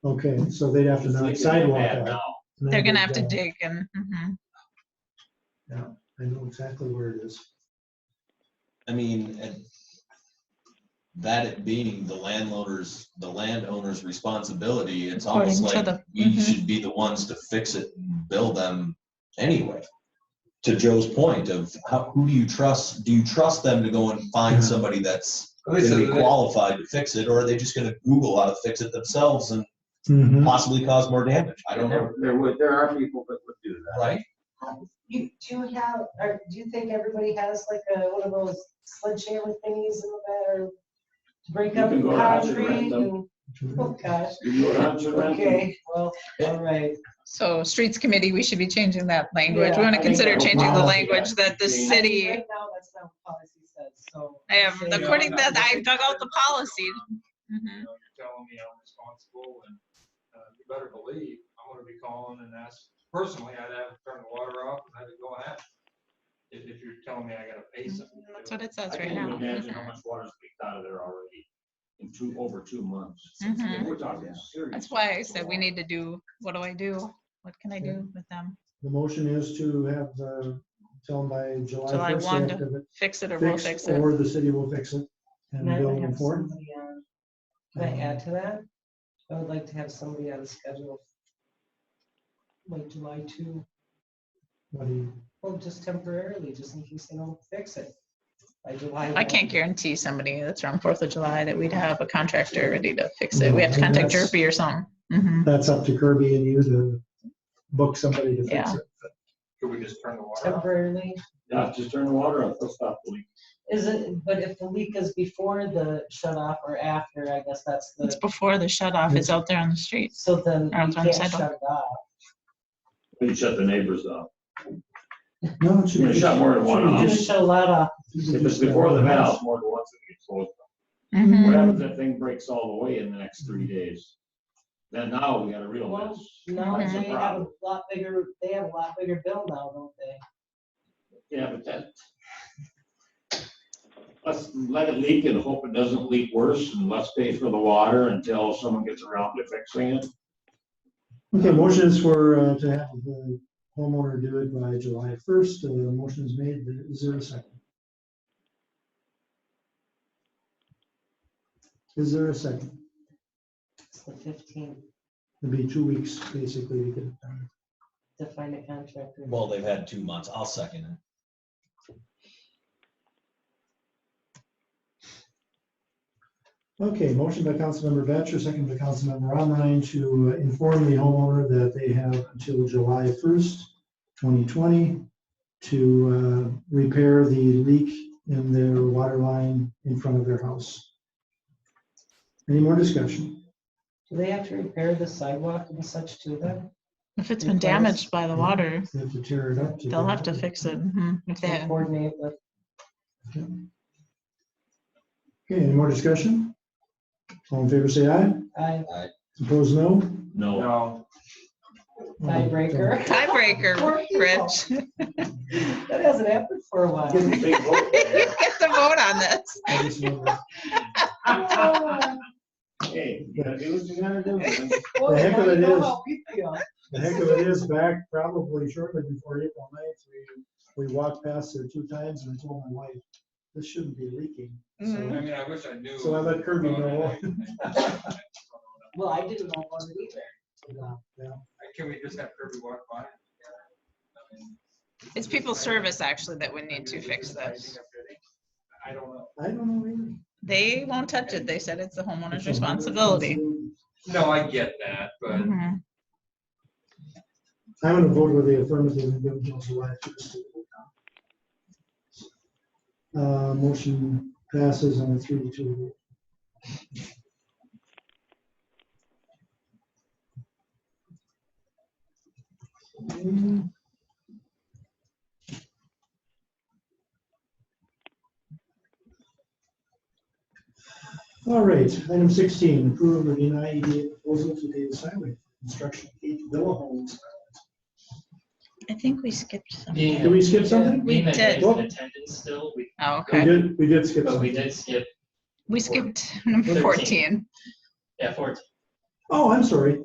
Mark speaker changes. Speaker 1: Okay, so they'd have to knock sidewalk out. and
Speaker 2: They're
Speaker 1: then
Speaker 2: gonna
Speaker 1: dig
Speaker 2: have to
Speaker 1: down.
Speaker 2: dig and, mhm.
Speaker 1: I know exactly where it is.
Speaker 3: I mean, and that it being the landlord's, the landowner's responsibility, it's almost
Speaker 2: According to the-
Speaker 3: like we
Speaker 2: mhm.
Speaker 3: should be the ones to fix it and bill them anyway. To Joe's point of how, who do you trust? Do you trust them to go and
Speaker 1: Yeah.
Speaker 3: find somebody that's
Speaker 4: At least,
Speaker 3: gonna be
Speaker 4: it-
Speaker 3: qualified to fix it, or are they just gonna Google how to fix it themselves and
Speaker 1: Mhm.
Speaker 3: possibly cause more damage? I don't know,
Speaker 4: there there would, there are people that would do that.
Speaker 3: right?
Speaker 5: You, do you have, or do you think everybody has like a, one of those sledgehammer thingies in the bed or to break
Speaker 4: You
Speaker 5: up
Speaker 4: can go to Hutch and rent
Speaker 5: concrete?
Speaker 4: them.
Speaker 5: and- Oh, gosh,
Speaker 4: You go down to rent them.
Speaker 5: okay, well, all right.
Speaker 2: so streets committee, we should be changing that language.
Speaker 5: Yeah,
Speaker 2: We
Speaker 5: I
Speaker 2: want to
Speaker 5: think
Speaker 2: consider
Speaker 5: that-
Speaker 2: changing
Speaker 4: Wow.
Speaker 2: the language that the
Speaker 4: Actually,
Speaker 2: city,
Speaker 5: Right now, that's not what policy says, so.
Speaker 2: I have,
Speaker 5: I'd say-
Speaker 2: according to that, I dug out the policy. Mhm.
Speaker 6: Telling me I'm responsible and, uh, you better believe, I'm gonna be calling and ask, personally, I'd have to turn the water off and I'd go and ask. If, if you're telling me I gotta pay something. to
Speaker 2: Mm-hmm. That's
Speaker 6: do
Speaker 2: what
Speaker 6: it.
Speaker 2: it says
Speaker 4: I
Speaker 2: right
Speaker 4: can't
Speaker 2: now.
Speaker 4: even imagine how
Speaker 2: Mhm.
Speaker 4: much water's leaked out of there already in two, over two months.
Speaker 2: Mhm.
Speaker 4: We're talking serious.
Speaker 2: That's why I said we need to do, what do I do? What can I do with them?
Speaker 1: The motion is to have, the tell them by
Speaker 2: July
Speaker 1: July first.
Speaker 2: one
Speaker 1: they have to have it
Speaker 2: Fix it or we'll fix
Speaker 1: fixed,
Speaker 2: it.
Speaker 1: Or the city will fix it and
Speaker 5: And I'd
Speaker 1: bill uh,
Speaker 5: like to
Speaker 1: them
Speaker 5: have
Speaker 1: for it.
Speaker 5: somebody on- Can I add to that? I would like to have somebody on the schedule. Like July two,
Speaker 1: What do you-
Speaker 5: well, just temporarily, just in case they don't fix it. By July.
Speaker 2: I can't
Speaker 5: 1.
Speaker 2: guarantee somebody that's around Fourth of July that we'd have a contractor ready to fix it. We have to contact
Speaker 1: That's-
Speaker 2: Jerpy or something. Mhm.
Speaker 1: That's up to Kirby and you to book somebody to fix
Speaker 2: Yeah.
Speaker 1: it.
Speaker 6: Could we just turn the water off?
Speaker 5: Temporarily.
Speaker 4: Yeah, just turn the water off, they'll stop the leak.
Speaker 5: Is it, but if the leak is before the shut off or after, I guess that's
Speaker 2: It's
Speaker 5: the,
Speaker 2: before the shut off is out there on the streets.
Speaker 5: so then
Speaker 2: Or
Speaker 5: you
Speaker 2: it's on
Speaker 5: can't
Speaker 2: sidewalk.
Speaker 5: shut it off.
Speaker 4: You shut the neighbors off.
Speaker 1: No, it should
Speaker 4: You're
Speaker 1: be.
Speaker 4: gonna shut more than one
Speaker 5: You're
Speaker 4: off.
Speaker 5: gonna shut a lot off.
Speaker 4: If it's before the valve, more than once it gets closed.
Speaker 2: Mhm.
Speaker 4: What happens if that thing breaks all the way in the next three days? Then now we got a real mess.
Speaker 5: No,
Speaker 4: That's the
Speaker 5: they have a
Speaker 4: problem.
Speaker 5: lot bigger, they have a lot bigger bill now, don't they?
Speaker 4: Yeah, but that. Let's let it leak and hope it doesn't leak worse and let's pay for the water until someone gets around to fixing it.
Speaker 1: Okay, motions for, uh, to have the homeowner do it by July first. Uh, motion's made, is there a second? Is there a second?
Speaker 5: It's the fifteenth,
Speaker 1: It'd be two weeks, basically, to get it done.
Speaker 5: to find a contractor.
Speaker 3: Well, they've had two months. I'll second it.
Speaker 1: Okay, motion by Councilmember Batchor, second by Councilmember Online to inform the homeowner that they have until July first, twenty twenty, to uh, repair the leak in their water line in front of their house. Any more discussion?
Speaker 5: Do they have to repair the sidewalk and such to them?
Speaker 2: If it's
Speaker 5: Your
Speaker 2: been
Speaker 5: clothes.
Speaker 2: damaged by the water,
Speaker 1: They have to tear it up.
Speaker 2: they'll have to fix it. Mhm. If they
Speaker 5: To coordinate with,
Speaker 1: Okay, any more discussion? All in favor, say aye.
Speaker 5: I,
Speaker 1: Opposed, no.
Speaker 4: No,
Speaker 6: No,
Speaker 1: Mm-hmm.
Speaker 5: tiebreaker. Poor
Speaker 2: Tiebreaker,
Speaker 5: people.
Speaker 2: Rich. You
Speaker 5: That hasn't happened for a while.
Speaker 4: give them a big vote there.
Speaker 2: get the vote on this.
Speaker 1: I just wonder-
Speaker 5: The
Speaker 4: Hey, you gotta do what you gotta do. man.
Speaker 1: heck of it is.
Speaker 5: is.
Speaker 1: The heck of it is back probably shortly before April 9th, we, we walked past there two times and I told my wife, this shouldn't be leaking.
Speaker 6: I
Speaker 1: So
Speaker 6: mean, I wish I knew.
Speaker 1: So I let Kirby know.
Speaker 5: Well, I didn't know about it either.
Speaker 6: Can we just have Kirby walk by?
Speaker 2: It's people's service actually that would need to fix this.
Speaker 6: I don't know.
Speaker 1: I don't know either.
Speaker 2: They won't touch it. They said it's the homeowner's responsibility.
Speaker 6: No, I get that, but
Speaker 2: Mhm.
Speaker 1: I'm gonna vote with the affirmative and give Jill July first. Uh, motion passes on a three to two. vote. Mm. All right, item sixteen, approve or deny EDA proposal to Davis Highway construction eight villa homes.
Speaker 2: I think we skipped something.
Speaker 7: Being
Speaker 1: Did we skip something?
Speaker 7: being that
Speaker 2: did.
Speaker 7: Dave's in attendance still, we,
Speaker 2: Oh,
Speaker 1: We
Speaker 2: okay.
Speaker 1: did, we did skip
Speaker 7: but we
Speaker 1: something.
Speaker 7: did skip,
Speaker 2: We skipped number
Speaker 7: Thirteen.
Speaker 2: 14.
Speaker 7: yeah, fourteen.
Speaker 1: Oh, I'm sorry.